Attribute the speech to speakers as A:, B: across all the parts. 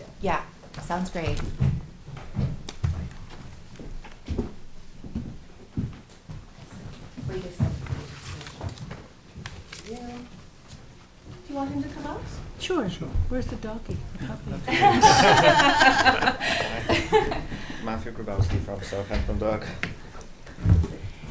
A: Yeah, sounds great. Wait a second. Yeah. Do you want him to come out?
B: Sure. Where's the doggy? The puppy?
C: Matthew Grabowski from Southampton Dog.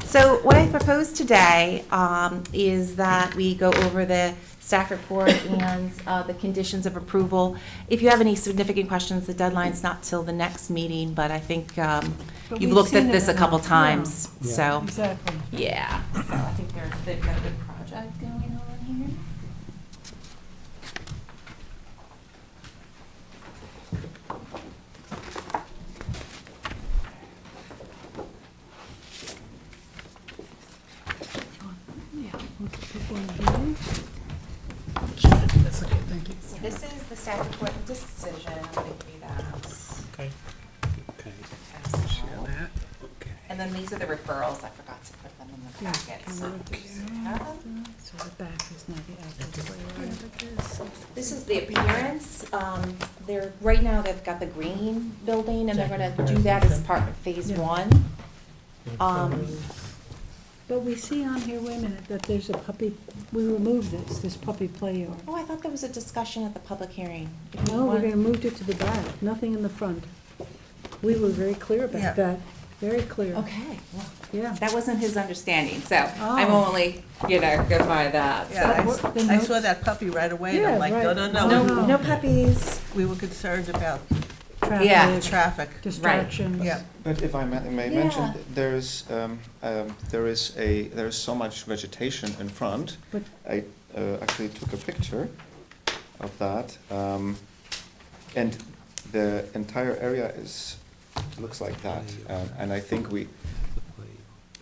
A: So what I propose today um, is that we go over the staff report and uh, the conditions of approval. If you have any significant questions, the deadline's not till the next meeting, but I think um,
B: But
A: you've
B: we've
A: looked
B: seen
A: at
B: it
A: this a couple
B: enough, yeah.
A: times,
D: Yeah.
A: so,
B: Exactly.
A: yeah. So I think they're, they've got a good project going on here.
B: Yeah. we'll keep one of these.
D: That's okay, thank you.
A: So this is the staff report and decision, I'm gonna give you that.
D: Okay. Okay.
A: as
D: Share
A: well.
D: that. Okay.
A: And then these are the referrals, I forgot to put them in the
B: Yeah,
A: packet,
B: can
A: so.
B: we look
A: do you have them?
B: So the back is not the outside. Wherever it is.
A: This is the appearance, um, they're, right now, they've got the green building, and they're gonna do that as part of phase
B: Yeah.
A: one. Um,
B: But we see on here, wait a minute, that there's a puppy, we removed this, this puppy play yard.
A: oh, I thought there was a discussion at the public hearing. If you
B: No, we're
A: want-
B: gonna move it to the back, nothing in the front. We were very clear about that, very clear.
A: Okay, well,
B: Yeah.
A: that wasn't his understanding, so I'm
B: Oh.
A: only, you know, go by that, so.
E: Yeah, I s-
B: What- the
E: I saw
B: notes?
E: that puppy right away, and I'm
B: Yeah,
E: like, no,
B: right.
E: no,
A: No,
E: no,
B: Wow.
A: no puppies.
E: we were concerned about
A: Yeah.
B: Traffic,
E: traffic.
B: distractions.
E: Yeah.
C: But if I ma- may
A: Yeah.
C: mention, there is, um, um, there is a, there is so much vegetation in front.
B: But-
C: I uh, actually took a picture of that. um, And the entire area is, looks like that. um, And I think we,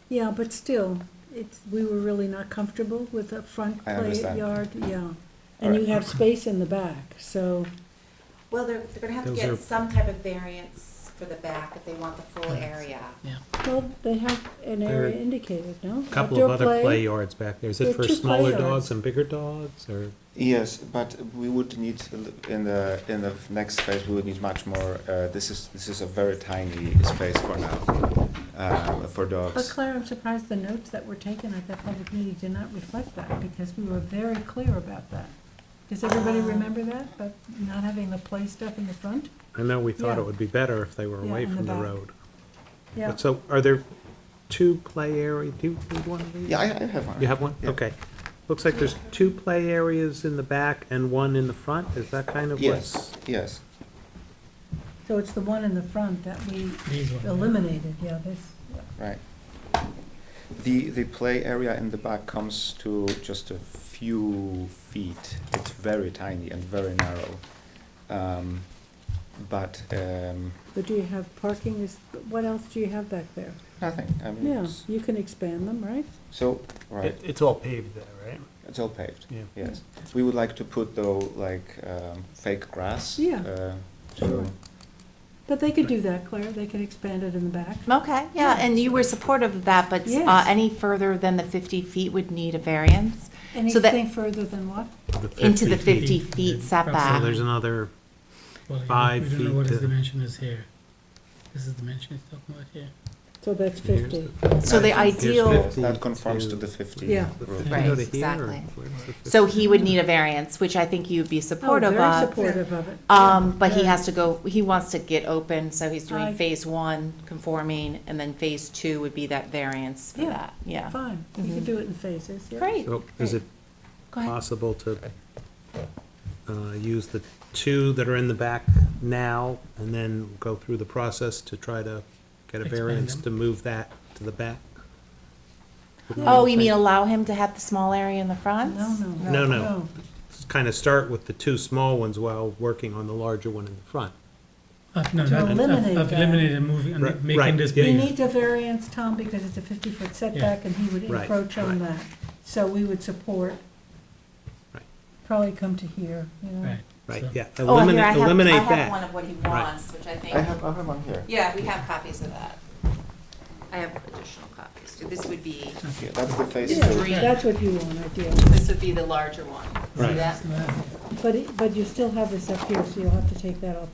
B: Yeah, but still, it's, we were really not comfortable with the front play
C: I understand.
B: yard, yeah. And you
C: Alright.
B: have space in the back, so,
A: Well, they're, they're gonna have to
D: Those
A: get
D: are-
A: some type of variance for the back if they want the full area.
B: well, they have an
F: There are
B: area indicated, no?
F: Couple of
B: Outdoor
F: other play yards back there. Is
B: There are
F: it for
B: two play
F: smaller
B: yards.
F: dogs and bigger dogs or?
C: yes, but we would need, a li- in the, in the next phase, we would need much more. uh, This is, this is a very tiny space for now, um, for dogs.
B: But Claire, I'm surprised the notes that were taken at that public meeting did not reflect that, because we were very clear about that. Does everybody
A: Um.
B: remember that, about not having the play stuff in the front?
F: I know we thought
B: Yeah.
F: it would be better if they were
B: Yeah,
F: away
B: in the
F: from the
B: back.
F: road.
B: Yeah,
F: But So are there two play area, do you need one of these?
C: Yeah, I, I have one.
F: You have one?
C: Yeah.
F: Okay. Looks like there's two play areas in the back and one in the front. Is that kind of what's?
C: Yes, yes.
B: so it's the one in the front that we eliminated, yeah, this,
C: Right. The, the play area in the back comes to just a few feet. It's very tiny and very narrow. Um, But, um,
B: but do you have parking, is, what else do you have back there?
C: nothing, I mean,
B: Yeah,
C: it's-
B: you can expand them, right?
C: so, right,
F: It's all paved there, right?
C: it's all paved,
F: Yeah.
C: yes. We would like to put though, like, um, fake grass.
B: Yeah.
C: uh,
B: Sure.
C: To,
B: But they could do that, Claire, they could expand it in the back.
A: Okay, yeah, and you were supportive of that, but uh,
B: Yes.
A: any further than the 50 feet would need a variance So that-
B: Anything further than what?
A: into the
G: 50
A: 50
G: feet,
A: feet
G: yeah.
F: So
A: setback.
F: there's another,
G: Well, you know,
F: Five
G: We don't know what
F: feet
G: his
F: to-
G: dimension is here. This is the dimension he's talking about here.
B: So that's
F: Here's
B: fifty.
A: So the
C: Here's
A: ideal,
F: fifty
C: that conforms to
F: to-
C: the fifty
B: Yeah.
F: did
C: rule.
F: you
A: Right,
F: go to here or
A: exactly.
F: where's the
A: so
F: 50?
A: he would need a variance, which I think you'd be supportive
B: Oh, very
A: of.
B: supportive of it.
A: Um, But he has to go, he wants to get open, so he's doing
B: I-
A: phase one conforming, and then phase two would be that variance for
B: Yeah.
A: that, yeah.
B: Fine, Mm-hmm. we can
A: Mhm.
B: do it in phases, yeah.
A: Great,
F: So Oh, is it
A: go ahead.
F: possible to uh, use the two that are in the back now and then go through the process to try to get a
G: Expand
F: variance
G: them.
F: to move that to the back?
A: Oh, you mean allow him to have the small area in the front?
B: No, no.
F: No, no. Kind of start with the two small ones while working on the larger one in the front.
G: I've, Uh, no,
B: To
G: I've- I've-
B: eliminate
G: I've
B: that.
G: eliminated moving and
F: Right,
G: making
F: right,
G: this
F: yeah,
B: We
G: bigger.
B: need a variance, Tom, because it's a fifty-foot setback, and he would
F: Right,
B: encroach on
F: right.
B: that. So we would support,
F: Right.
B: probably come to here, you know?
G: Right.
F: Right,
G: so-
F: yeah,
A: Oh, and here I
F: eliminate,
A: have-
F: eliminate
A: I have one
F: that.
A: of what he
F: Right.
A: wants, which I think.
C: I have, I have one here.
A: Yeah, we have copies of that. I have additional copies. So This would be,
C: Yeah, That's the phase
A: It's
B: Yeah,
C: two.
A: green.
B: That's what you want, ideally.
A: this would be the larger one. See
F: Right.
A: that?
G: So that-
B: But, it- but you still have this up here, so you'll have to take that off